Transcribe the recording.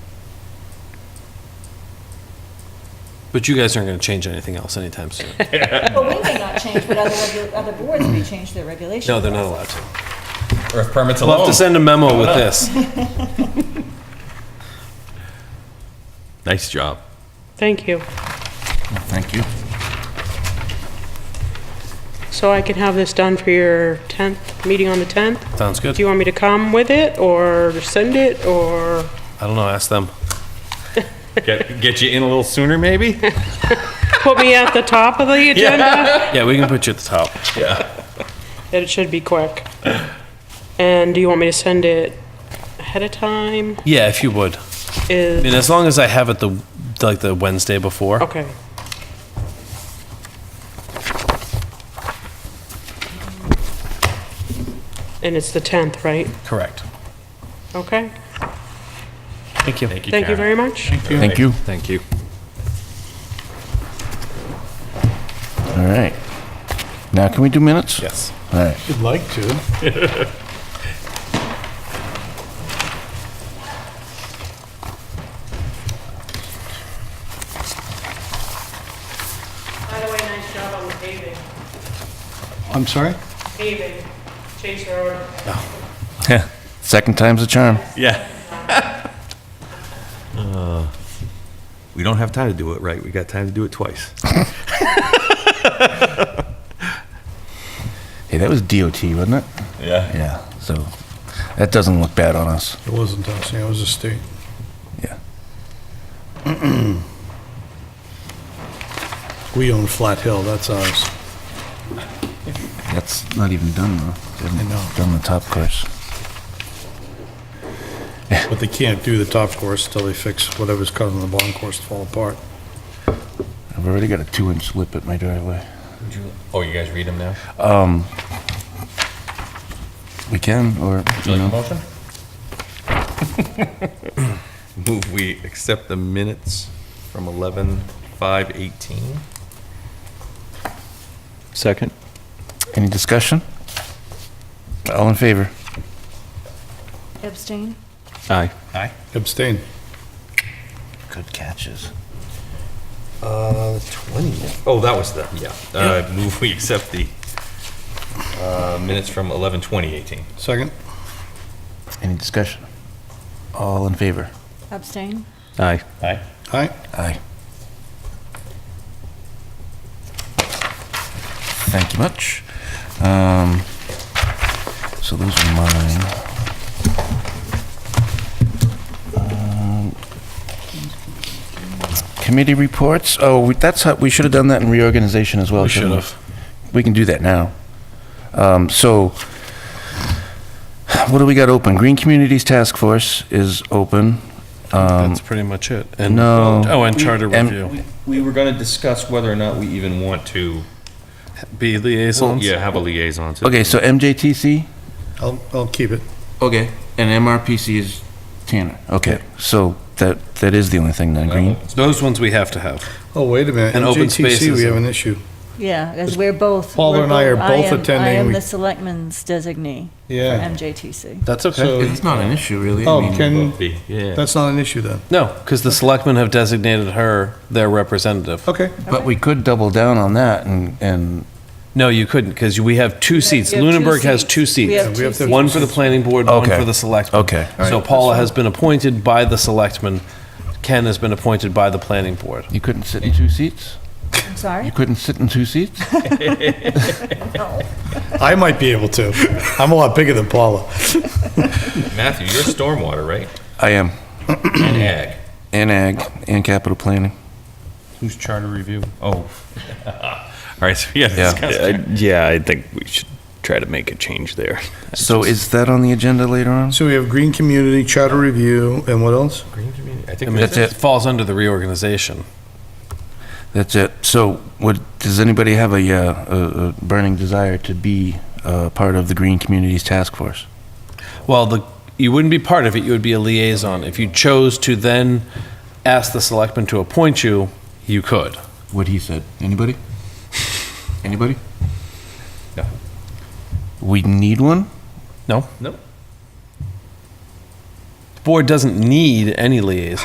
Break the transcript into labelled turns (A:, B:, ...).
A: But you guys aren't going to change anything else anytime soon.
B: But we may not change, but other, regu- other boards may change their regulations.
A: No, they're not allowed to.
C: Or if permits
A: We'll have
C: alone.
A: to send a memo with this.
C: Nice job.
D: Thank you.
C: Thank you.
D: So I can have this done for your 10th, meeting on the 10th?
A: Sounds good.
D: Do you want me to come with it, or send it, or?
A: I don't know, ask them.
C: Get, get you in a little sooner, maybe?
D: put me at the top of the agenda,
A: Yeah, we can put you at the top.
D: it should be quick. And do you want me to send it ahead of time?
A: Yeah, if you would. I mean,
D: Is,
A: as long as I have it the, like, the Wednesday before.
D: okay. And it's the 10th, right?
A: Correct.
D: Okay,
A: Thank you.
D: thank you very much.
E: Thank you.
A: Thank you.
E: All right. Now, can we do minutes?
A: Yes.
E: All right.
F: You'd like to.
D: By the way, nice job on the paving,
F: I'm sorry?
D: paving, Chase Road.
E: Second time's a charm.
C: Yeah.
G: We don't have time to do it right. We got time to do it twice.
E: Hey, that was DOT, wasn't it?
C: Yeah.
E: Yeah. So that doesn't look bad on us.
F: It wasn't us, yeah, it was the state.
E: Yeah.
F: We own Flat Hill, that's ours.
E: That's not even done though. They haven't
F: I know.
E: Done the top course.
F: But they can't do the top course till they fix whatever's causing the bottom course to fall apart.
E: I've already got a two-inch lip at my driveway.
C: Oh, you guys read them now?
E: We can, or
C: Do
E: you
C: you like a
E: know,
C: motion?
G: Move we accept the minutes from 11:5:18.
A: Second.
E: any discussion? All in favor?
B: Abstain?
A: Aye.
C: Aye.
F: Abstain.
E: Good catches.
G: Uh, 20. Oh, that was the, yeah. Uh, move we accept the uh, minutes from 11:20:18.
F: Second?
E: Any discussion? All in favor?
B: Abstain?
A: Aye.
C: Aye.
F: Aye?
E: Aye. Thank you much. Um, so those are mine. Um, Committee reports, oh, we- that's how, we should have done that in reorganization as well.
A: We
E: shouldn't
A: should've.
E: We can do that now. Um, so, what do we got open? Green Communities Task Force is open.
A: That's pretty much it. And-
E: no.
A: Oh, and charter
E: And-
A: review.
C: We were gonna discuss whether or not we even want to,
A: Be liaisons?
C: yeah, have a liaison to.
E: Okay, so MJTC?
F: I'll, I'll keep it.
E: Okay, and MRPC is Tanner. Okay, so that, that is the only thing then, Green?
A: Those ones we have to have.
F: Oh, wait a minute.
A: And open
F: MJTC,
A: spaces.
F: we have an issue.
B: Yeah, because we're both.
F: Paula
B: we're
F: and I are both
B: am- I
F: attending.
B: am
F: We-
B: the selectman's designee for
F: Yeah.
B: MJTC.
A: That's
F: So-
E: It's not an issue, really. I
F: Oh,
E: mean-
F: can,
C: Be, Yeah.
F: that's not an issue then.
A: No, because the selectmen have designated her their representative.
F: Okay.
E: But we could double down on that and, and,
A: No, you couldn't, because we have two seats.
B: you have two
A: Lunenburg has two
B: seats. We have
A: seats.
F: we have
B: two
F: to-
A: One for the planning board, one
E: Okay.
A: for the selectmen.
E: Okay, all
A: So
E: right.
A: Paula has been appointed by the selectmen. Ken has been appointed by the planning board.
E: you couldn't sit in two seats?
B: seats. I'm sorry?
E: You couldn't sit in two seats?
F: I might be able to. I'm a lot bigger than Paula.
C: Matthew, you're stormwater, right?
E: I am,
C: And ag.
E: and ag, and capital planning.
C: Who's charter review? Oh. All right, so yeah,
E: Yeah.
C: discuss.
H: I- Yeah, I think we should try to make a change there.
E: So is that on the agenda later on?
F: So we have Green Community, Charter Review, and what else?
C: Green community, I
A: I
C: think
A: mean,
E: That's
C: that's
A: it
E: it.
A: falls under the reorganization.
E: That's it. So what, does anybody have a, uh, a, a burning desire to be, uh, part of the Green Communities Task Force?
A: Well, the, you wouldn't be part of it, you would be a liaison. If you chose to then ask the selectmen to appoint you, you could.
E: what he said. Anybody? Anybody?
C: No.
E: We need one?
A: No?
C: No.
A: The board doesn't need any liaison.